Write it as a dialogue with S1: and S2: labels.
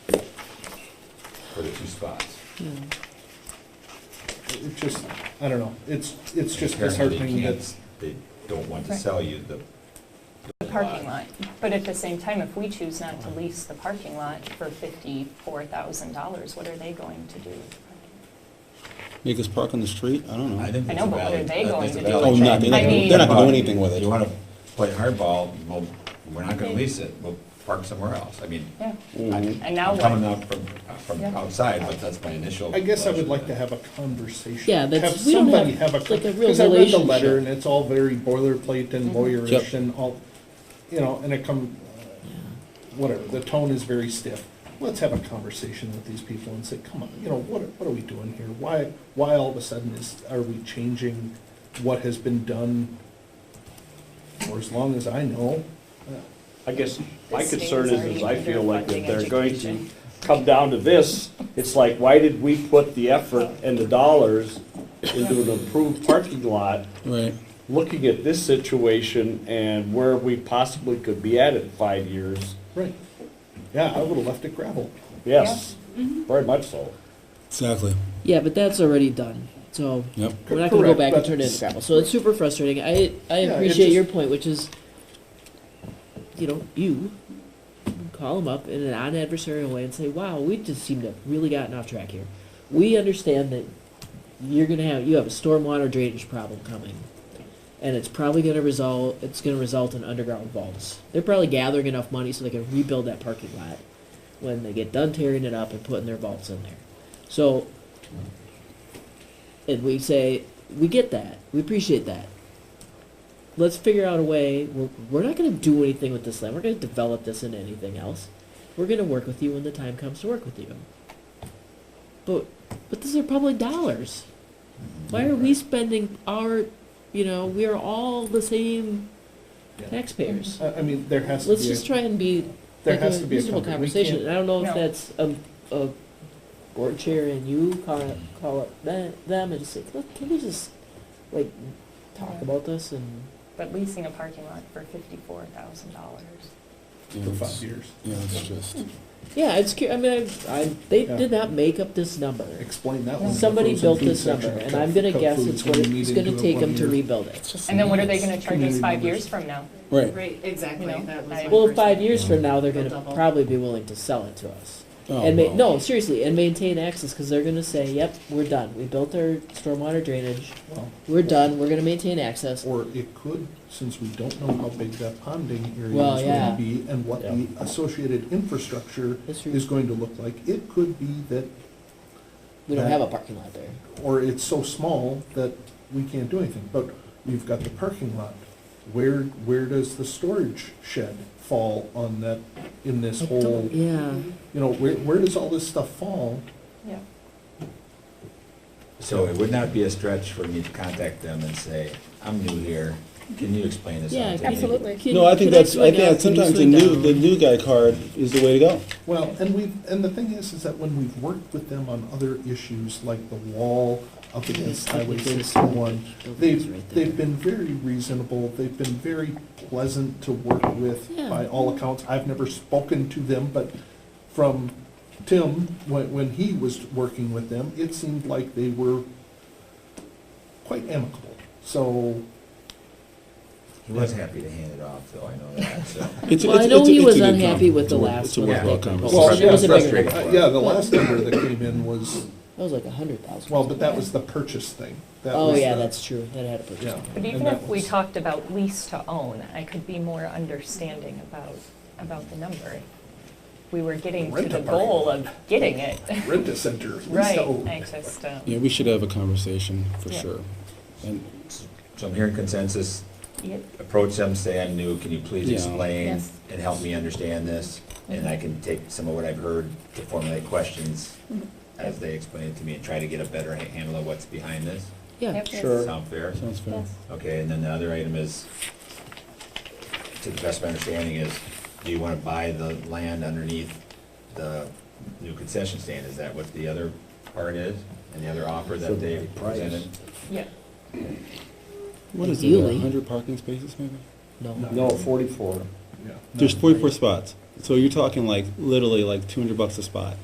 S1: for the two spots.
S2: It just, I don't know, it's, it's just
S1: Apparently they
S2: disheartening
S1: can't-
S2: that's,
S1: They don't want to
S3: Right.
S1: sell you the,
S3: the parking lot. But at the same time, if we choose not to lease the parking lot for fifty-four thousand dollars, what are they going to do? with the parking
S4: Make us park on the street? I don't know.
S1: I think
S3: I
S1: it's a
S3: know, but what
S1: valid-
S3: are they
S1: I think
S3: going
S1: it's a
S3: to do
S1: valid
S4: with it? Oh, no,
S1: change.
S4: they're
S3: not- I mean- they're
S4: not gonna do anything with it.
S1: You wanna play hardball, well, we're not gonna lease it, we'll park somewhere else, I mean.
S3: lot? Yeah.
S1: I-
S4: Mhm.
S3: And now
S1: I'm
S3: what?
S1: Coming up from, from
S3: Yeah.
S1: outside, but that's my initial.
S2: I guess I would like to
S1: impression.
S2: have a conversation.
S5: Yeah, that's- we don't have, like, a real
S2: Because I read the
S5: relationship. Mm-hmm.
S2: letter and it's all very boilerplate and lawyerish
S4: Yep.
S2: and all, you know, and it come, whatever, the tone is very stiff. Let's have a conversation with these people and say, come on, you know, what, what are we doing here? Why, why all of a sudden is, are we changing what has been done for as long as I know?
S6: I guess my
S3: The state
S6: concern
S3: is
S6: is, is I
S3: already
S6: feel like if
S3: underfunding
S6: they're going to
S3: education.
S6: come down to this, it's like, why did we put the effort and the dollars into an improved parking lot,
S4: Right.
S6: looking at this situation and where we possibly could be at in five years?
S2: Right. Yeah, I would have left it gravel.
S6: Yes,
S3: Mm-hmm.
S6: very much so.
S4: Exactly.
S5: Yeah, but that's already done, so
S4: Yep.
S5: we're not gonna go
S2: Correct,
S5: back and
S2: but-
S5: turn it into gravel, so it's super frustrating, I, I
S2: Yeah, it
S5: appreciate
S2: just-
S5: your point, which is, you know, you call them up in an non-adversarial way and say, wow, we just seem to have really gotten off track here. We understand that you're gonna have, you have a stormwater drainage problem coming, and it's probably gonna result, it's gonna result in underground vaults. They're probably gathering enough money so they can rebuild that parking lot when they get done tearing it up and putting their vaults in there. So, and we say, we get that, we appreciate that. Let's figure out a way, we're, we're not gonna do anything with this land, we're gonna develop this into anything else. We're gonna work with you when the time comes to work with you. But, but these are public dollars. Why are we spending our, you know, we are all the same taxpayers.
S2: I, I mean, there has to be.
S5: Let's
S2: a-
S5: just try and be
S2: There
S5: like
S2: has
S5: a
S2: to be a
S5: reasonable
S2: company. We
S5: conversation.
S2: can't-
S5: And I don't know if
S3: No.
S5: that's a, a board chair and you call it, call up them, them and just say, look, can we just like talk about this and
S3: But leasing a parking lot for fifty-four thousand dollars.
S4: Yeah,
S2: for
S4: it's-
S2: five years.
S4: Yeah, it's just,
S3: Hmm.
S5: yeah, it's cur- I mean, I, I they
S2: Yeah.
S5: did not make up this number.
S2: Explain that one.
S5: Somebody built this number,
S2: number,
S5: and I'm gonna guess it's what it's gonna take them to rebuild it.
S3: And then what are they gonna charge us five years from now?
S4: right.
S7: Right, exactly,
S3: You know,
S7: that was
S3: I-
S7: my
S5: Well,
S7: first-
S5: five years from now, they're
S7: They'll
S5: gonna
S7: double.
S5: probably be willing to sell it to us.
S4: Oh,
S5: And ma-
S4: well.
S5: no, seriously, and maintain access, cause they're gonna say, yep, we're done. We built our stormwater drainage. We're done. We're gonna maintain access.
S2: Or it could, since we don't know how big that ponding area
S5: Well,
S2: is
S5: yeah.
S2: gonna be and what the associated infrastructure
S5: That's true.
S2: is going to look like, it could be that,
S5: We don't have a parking lot there.
S2: or it's so small that we can't do anything. But we've got the parking lot. Where, where does the storage shed fall on that, in this whole, you
S5: Yeah.
S2: know, where, where does all this stuff fall?
S3: Yeah.
S1: So it would not be a stretch for me to contact them and say, I'm new here, can you explain this
S5: Yeah.
S1: out to me?
S4: No, I think that's, I think that sometimes the new, the new guy card is the way to go.
S2: Well, and we've, and the thing is, is that when we've worked with them on other issues, like the wall up against Highway sixty-one, they've, they've been very reasonable, they've been very pleasant to work with by
S5: Yeah.
S2: all accounts. I've never spoken to them, but from Tim, when, when he was working with them, it seemed like they were quite amicable. So,
S1: He was happy to hand it off, though, I know that, so.
S4: It's-
S5: Well, I
S4: it's-
S5: know
S4: it's-
S5: he
S4: it's a
S5: was
S4: good
S5: unhappy
S4: compromise.
S5: with the
S4: It's a-
S5: last
S4: it's a
S5: one that
S4: worthwhile
S5: they
S4: compromise.
S5: proposed.
S2: well,
S5: It was a bigger
S1: frustrating.
S2: uh, yeah, the last number that came in was,
S5: That was like a hundred thousand.
S2: well, but that was the purchase thing. That
S5: Oh,
S2: was
S5: yeah,
S2: the-
S5: that's true. That had a
S2: Yeah.
S5: purchase.
S3: But
S2: and
S3: even
S2: that
S3: if we
S2: was-
S3: talked about lease to own, I could be more understanding about, about the number. We were getting to
S2: Rent a
S3: the
S2: parking
S3: goal of getting it.
S2: Rent a center. lease to
S3: Right,
S2: own.
S3: I just, um,
S4: Yeah, we should have a conversation, for
S3: Yeah.
S4: sure. And,
S1: So I'm hearing consensus,
S3: yeah,
S1: approach them, say I'm new, can you please
S4: Yeah.
S1: explain
S7: Yes.
S1: and help me understand this? And I can take some of what I've heard to formulate questions as they explain it to me and try to get a better ha- handle of what's behind this.
S5: Yeah.
S3: yep,
S6: Sure.
S1: Sound fair?
S4: sounds fair.
S3: yes.
S1: Okay, and then the other item is, to the best of my understanding is, do you want to buy the land underneath the new concession stand? Is that what the other part is? And the other offer that they presented?
S3: Yeah,
S4: What is it,
S5: Ideally.
S4: a hundred parking spaces maybe?
S5: No.
S6: No, forty-four.
S2: Yeah.
S4: There's forty-four spots, so you're talking like, literally like two hundred bucks a spot.